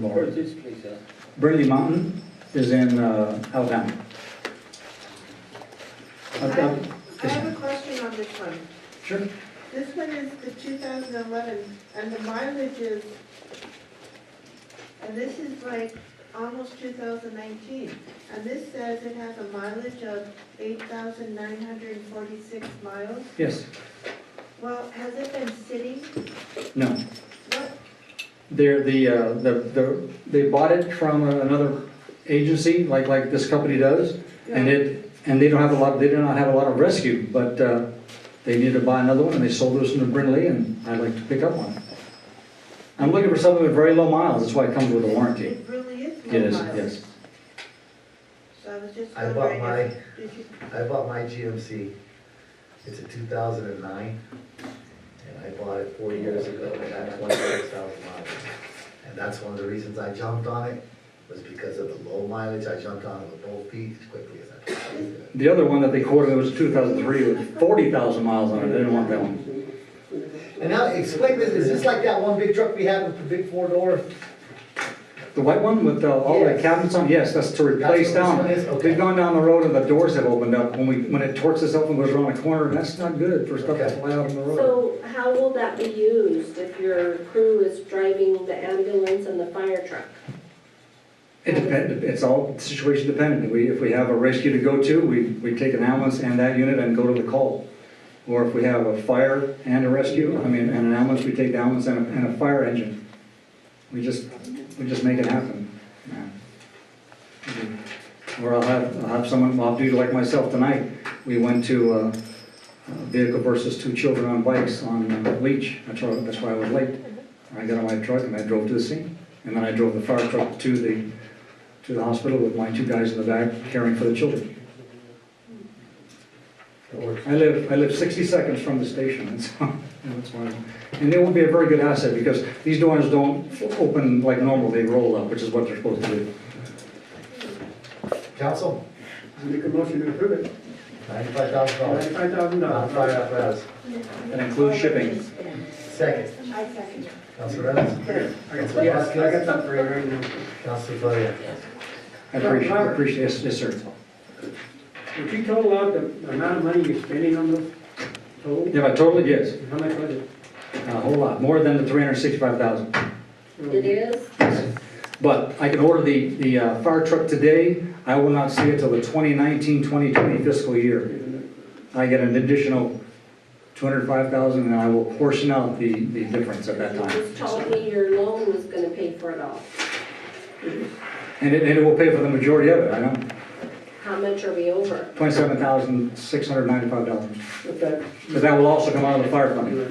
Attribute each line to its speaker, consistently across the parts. Speaker 1: Memorial.
Speaker 2: this place, uh,
Speaker 1: Brindley Mountain is in uh, Alabama. Uh,
Speaker 3: I
Speaker 1: Up- up-
Speaker 3: I have a question on this one.
Speaker 1: Sure.
Speaker 3: This one is the 2011, and the mileage is, and this is like almost 2019. And this says it has a mileage of 8,946 miles.
Speaker 1: Yes,
Speaker 3: Well, has it been sitting?
Speaker 1: no.
Speaker 3: What,
Speaker 1: They're the, uh, the, the, they bought it from another agency, like, like this company does. And it, and they don't have a lot, they do not have a lot of rescue, but, uh, they needed to buy another one and they sold this one to Brindley and I'd like to pick up one. I'm looking for something with very low miles, that's why it comes with a warranty.
Speaker 3: It really is low
Speaker 1: Yes,
Speaker 3: mileage.
Speaker 1: yes.
Speaker 3: So I was just
Speaker 4: I bought
Speaker 3: wondering
Speaker 4: my-
Speaker 3: if, did you,
Speaker 4: I bought my GMC, it's a two thousand and nine, and I bought it four years ago, and had twenty-six thousand miles. And that's one of the reasons I jumped on it, was because of the low mileage, I jumped on it with both feet as quickly as I could.
Speaker 1: The other one that they quoted was two thousand three with forty thousand miles on it, they didn't want that one.
Speaker 4: And now, explain this, is this like that one big truck we had with the big four door?
Speaker 1: The white one with uh, all the
Speaker 4: Yes.
Speaker 1: cabinets on, yes, that's to replace
Speaker 4: That's
Speaker 1: down.
Speaker 4: what this one is?
Speaker 1: We've gone down the road and the doors have opened up, when we, when it torques itself and goes around a corner, and that's not good for stuff to
Speaker 4: Okay.
Speaker 1: fly out on the road.
Speaker 5: So how will that be used if your crew is driving the ambulance and the fire truck?
Speaker 1: It depends, it's all situation dependent, we, if we have a rescue to go to, we, we take an ambulance and that unit and go to the call. Or if we have a fire and a rescue, I mean, and an ambulance, we take the ambulance and a, and a fire engine. We just, we just make it happen. Or I'll have, I'll have someone off duty like myself tonight. We went to uh, uh, vehicle versus two children on bikes on uh, Leach. That's why, that's why I was late. I got on my truck and I drove to the scene. And then I drove the fire truck to the, to the hospital with my two guys in the back caring for the children. I live, I live 60 seconds from the station, and so, that's why. And they won't be a very good asset, because these doors don't f- open like normal, they roll up, which is what they're supposed to do.
Speaker 4: Council,
Speaker 6: Make a motion to approve it,
Speaker 4: ninety-five thousand dollars,
Speaker 6: ninety-five thousand
Speaker 4: non-fire
Speaker 6: dollars.
Speaker 4: apparatus,
Speaker 1: That includes shipping.
Speaker 4: second,
Speaker 3: I second it.
Speaker 4: Council Reynolds,
Speaker 6: Yes, I got something for you right now.
Speaker 4: Council Floria.
Speaker 1: I appreciate, I appreciate, yes, yes, sir.
Speaker 6: If you total out the the amount of money you're spending on those toll,
Speaker 1: Yeah, I totally, yes,
Speaker 6: how much was it?
Speaker 1: a whole lot, more than the 365,000.
Speaker 5: It
Speaker 1: Mm-hmm.
Speaker 5: is?
Speaker 1: But I can order the, the uh, fire truck today, I will not see it till the 2019, 2020 fiscal year. I get an additional 205,000, and I will portion out the, the difference at that
Speaker 5: You
Speaker 1: time.
Speaker 5: just told me your loan was gonna pay for it all.
Speaker 1: And it, and it will pay for the majority of it, I know,
Speaker 5: How much are we over?
Speaker 1: twenty-seven thousand, six hundred ninety-five dollars.
Speaker 6: If that-
Speaker 1: But that will also come out of the fire fund,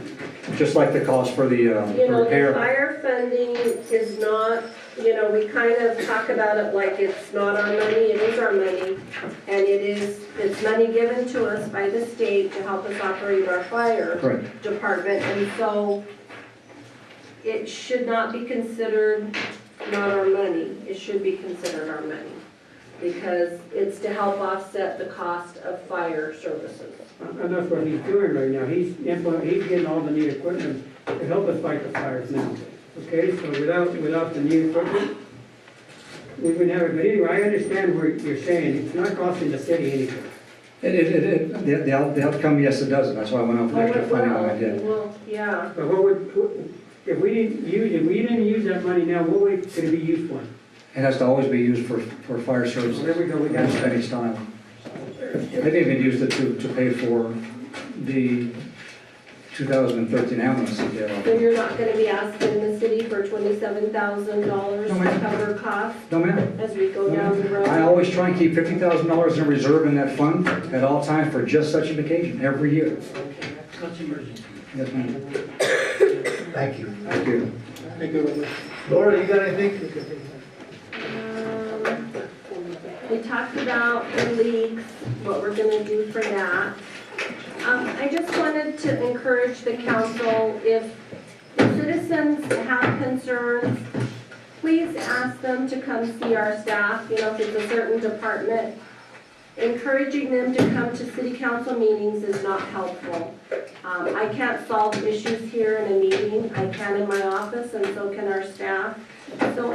Speaker 1: just like the cost for the, uh,
Speaker 5: You
Speaker 1: the
Speaker 5: know, the
Speaker 1: repair.
Speaker 5: fire funding is not, you know, we kind of talk about it like it's not our money, it is our money. And it is, it's money given to us by the state to help us operate our fire.
Speaker 1: Correct,
Speaker 5: department, and so it should not be considered not our money, it should be considered our money, because it's to help offset the cost of fire services.
Speaker 6: And that's what he's doing right now, he's, impl- he's getting all the new equipment to help us fight the fires now. Okay, so without, without the new equipment, we wouldn't have it, but anyway, I understand what you're saying, it's not costing the city anything.
Speaker 1: it, it, it- it, the, the out- the outcome, yes, it does, that's why I went off with
Speaker 5: Oh,
Speaker 1: extra
Speaker 5: it
Speaker 1: funding on
Speaker 5: will,
Speaker 1: that,
Speaker 5: it
Speaker 1: yeah.
Speaker 5: will, yeah.
Speaker 6: But what would, if we didn't use, if we didn't use that money now, what would, could it be used for?
Speaker 1: It has to always be used for, for fire services.
Speaker 6: There we go, we got
Speaker 1: That's
Speaker 6: it.
Speaker 1: Benny Stein. They even used it to, to pay for the 2013 ambulance that they
Speaker 5: So
Speaker 1: bought.
Speaker 5: you're not gonna be asking the city for twenty-seven thousand dollars
Speaker 1: No,
Speaker 5: to
Speaker 1: ma'am.
Speaker 5: cover costs
Speaker 1: No, ma'am.
Speaker 5: as we go down the road?
Speaker 1: I always try and keep fifty thousand dollars in reserve in that fund at all times for just such an occasion, every year. That's emergency. Yes,
Speaker 4: thank you.
Speaker 1: ma'am, thank you.
Speaker 4: Laura, you got anything?
Speaker 5: Um, We talked about the leagues, what we're gonna do for that. Um, I just wanted to encourage the council, if the citizens have concerns, please ask them to come see our staff, you know, if it's a certain department. Encouraging them to come to city council meetings is not helpful. Um, I can't solve issues here in a meeting, I can in my office, and so can our staff. So